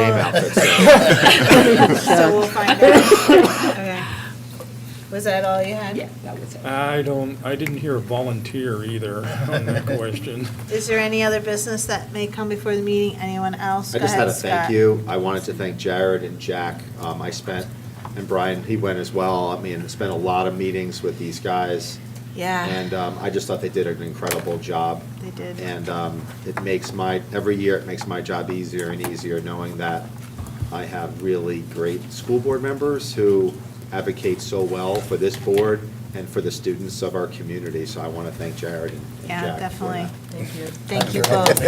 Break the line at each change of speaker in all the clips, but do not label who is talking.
outfits.
Uh. So we'll find out. Okay. Was that all you had?
Yeah, that was it.
I don't, I didn't hear volunteer either on that question.
Is there any other business that may come before the meeting? Anyone else?
I
Go
just had
ahead,
a thank
Scott.
you. I wanted to thank Jared and Jack. Um, I spent, and Brian, he went as well. I mean, I spent a lot of meetings with these guys.
Yeah,
And um, I just thought they did an incredible job.
they did.
And um, it makes my, every year, it makes my job easier and easier, knowing that I have really great school board members who advocate so well for this board and for the students of our community. So I want to thank Jared and and Jack.
Yeah,
for
definitely.
that.
Thank you.
Thank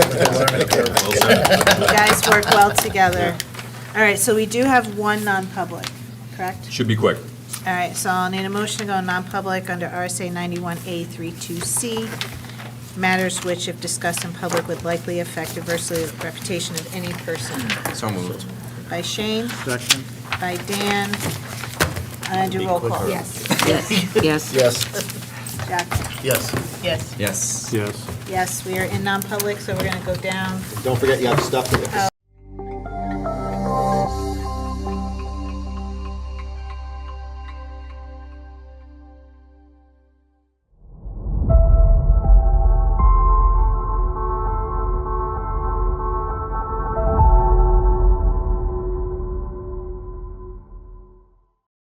you both. You guys work well together. All right, so we do have one non-public, correct?
Should be quick.
All right, so I'll need a motion to go non-public under RSA 91A32C. Matters which, if discussed in public, would likely affect adversely the reputation of any person.
So moved.
By Shane? Second. By Dan. And do roll call.
Yes.
Yes, yes.
Yes,
Jack?
yes.
Yes.
Yes.
Yes.
Yes, we are in non-public, so we're going to go down
Don't forget, you have stuff to get.